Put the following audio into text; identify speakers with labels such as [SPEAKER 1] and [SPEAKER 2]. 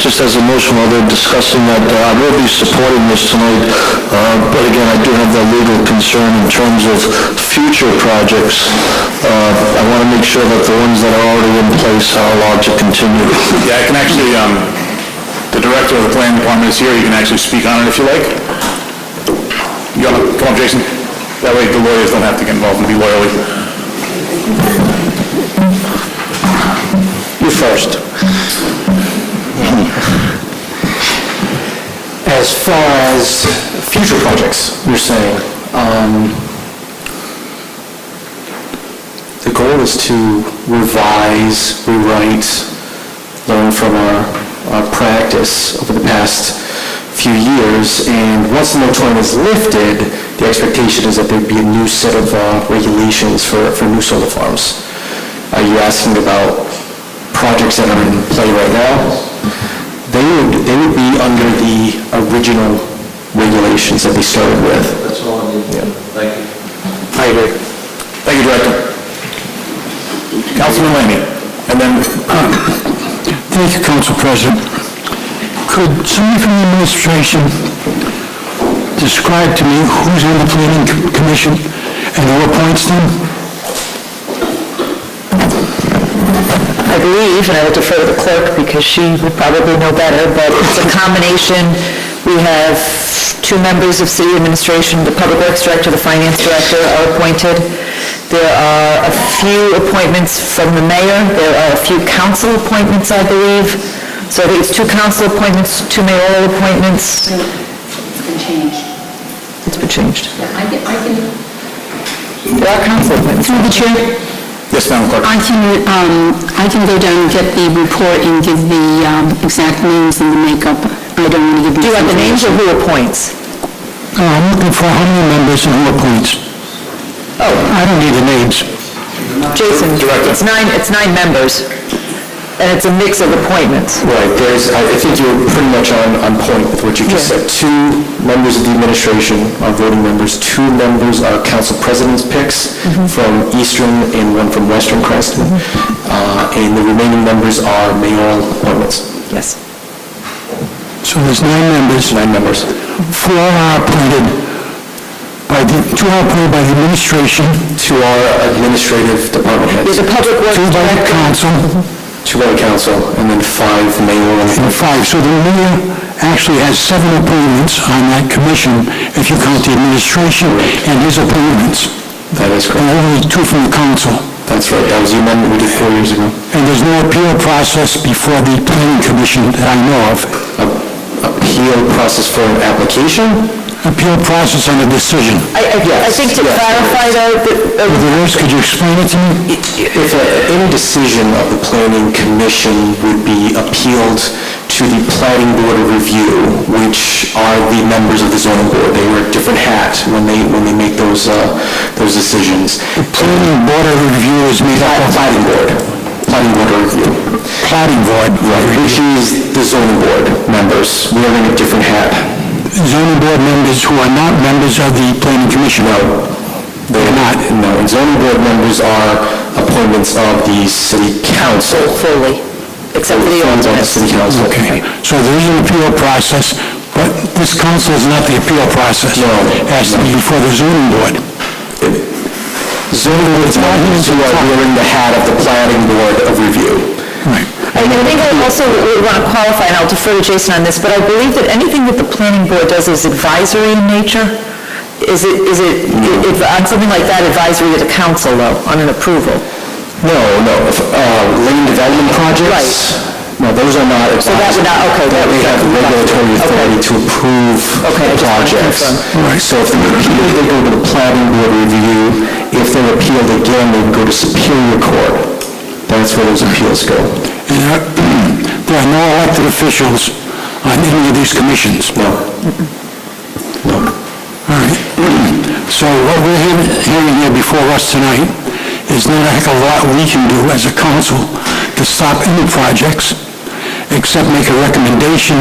[SPEAKER 1] Just as a motion, while they're discussing that, uh, I will be supporting this tonight, uh, but again, I do have that legal concern in terms of future projects. Uh, I want to make sure that the ones that are already in place are allowed to continue.
[SPEAKER 2] Yeah, I can actually, um, the director of the planning department is here, you can actually speak on it if you like. You wanna, come on, Jason. That way the lawyers don't have to get involved and be lawyerly.
[SPEAKER 1] You first.
[SPEAKER 3] As far as future projects, you're saying, um, the goal is to revise, rewrite, learn from our, our practice over the past few years, and once the moratorium is lifted, the expectation is that there'd be a new set of uh, regulations for, for new solar farms. Are you asking about projects that are in play right now? They would, they would be under the original regulations that we started with.
[SPEAKER 1] That's all I need. Thank you.
[SPEAKER 3] I agree.
[SPEAKER 2] Thank you, Director. Councilman Laney, and then,
[SPEAKER 4] Thank you, Council President. Could somebody from the administration describe to me who's on the planning co- commission and who appoints them?
[SPEAKER 5] I believe, and I would defer to the clerk because she would probably know better, but it's a combination. We have two members of city administration, the public works director, the finance director are appointed. There are a few appointments from the mayor, there are a few council appointments, I believe. So I think it's two council appointments, two mayoral appointments.
[SPEAKER 6] It's been changed.
[SPEAKER 5] It's been changed.
[SPEAKER 6] Yeah, I can, I can
[SPEAKER 5] There are council appointments.
[SPEAKER 6] Through the chair,
[SPEAKER 2] yes, Madam Clerk.
[SPEAKER 6] I can, um, I can go down and get the report and give the, um, exact names and the makeup. I don't want to give you...
[SPEAKER 5] Do you have the names or who appoints?
[SPEAKER 4] Uh, I'm looking for how many members and who appoints.
[SPEAKER 5] Oh.
[SPEAKER 4] I don't need the names.
[SPEAKER 5] Jason, it's nine, it's nine members, and it's a mix of appointments.
[SPEAKER 3] Right, there's, I I think you're pretty much on, on point with what you just
[SPEAKER 5] Yeah.
[SPEAKER 3] said. Two members of the administration are voting members, two members are council president's picks from Eastern and one from Western Creston, Uh, and the remaining members are mayoral appointments,
[SPEAKER 5] Yes.
[SPEAKER 4] So there's nine members,
[SPEAKER 3] nine members.
[SPEAKER 4] four are appointed by the, two are appointed by the administration,
[SPEAKER 3] Two are administrative department
[SPEAKER 5] There's
[SPEAKER 3] heads,
[SPEAKER 5] a public works
[SPEAKER 4] two by the
[SPEAKER 5] director.
[SPEAKER 4] council,
[SPEAKER 3] two by the council, and then five mayoral.
[SPEAKER 4] and five. So the mayor actually has seven appointments on that commission, if you count the administration and his appointments.
[SPEAKER 3] That is correct.
[SPEAKER 4] and only two from the council.
[SPEAKER 3] That's right, that was the amendment we did four years ago.
[SPEAKER 4] And there's no appeal process before the planning commission that I know of.
[SPEAKER 3] A- Uh, Appeal process for an application?
[SPEAKER 4] Appeal process on a decision.
[SPEAKER 5] I, I- I think to
[SPEAKER 3] Yes, yes.
[SPEAKER 5] clarify though, that,
[SPEAKER 4] With the rest, could you explain it to me?
[SPEAKER 3] If a- any decision of the planning commission would be appealed to the planning board of review, which are the members of the zoning board, they wear a different hat when they, when they make those, uh, those decisions.
[SPEAKER 4] Planning board of review is made up
[SPEAKER 3] Pla-
[SPEAKER 4] of
[SPEAKER 3] Planning board, planning board of review.
[SPEAKER 4] plotting board.
[SPEAKER 3] Right, which is the zoning board members wearing a different hat.
[SPEAKER 4] Zoning board members who are not members of the planning commission.
[SPEAKER 3] No, they're not, no. And zoning board members are appointments of the city council.
[SPEAKER 5] fully, except for the
[SPEAKER 3] Appointments of the
[SPEAKER 5] alternates.
[SPEAKER 3] city council.
[SPEAKER 4] Okay, so there is an appeal process, but this council is not the appeal process.
[SPEAKER 3] No.
[SPEAKER 4] It has to be before the zoning board.
[SPEAKER 3] Zoning board members who are wearing the hat of the planning board of review.
[SPEAKER 4] Right.
[SPEAKER 5] uh, I I think I also would want to qualify, and I'll defer to Jason on this, but I believe that anything that the planning board does is advisory in nature. Is it, is it, if, on something like that, advisory to the council though, on an approval?
[SPEAKER 3] No, no, if, uh, land development projects? No, those are not advisory.
[SPEAKER 5] that would not- okay, that
[SPEAKER 3] They
[SPEAKER 5] would-
[SPEAKER 3] have regulatory
[SPEAKER 5] okay.
[SPEAKER 3] authority to approve
[SPEAKER 5] Okay, I just wanted to
[SPEAKER 3] projects.
[SPEAKER 5] confirm.
[SPEAKER 3] Right. So if they appeal, they go to the planning board review. If they're appealed again, they go to Superior Court. That's where those appeals go.
[SPEAKER 4] And there are- there are no elected officials on any of these commissions.
[SPEAKER 3] No.
[SPEAKER 4] All right. So what we're hearing hearing here before us tonight is not a heck of a lot we can do as a council to stop any projects, except make a recommendation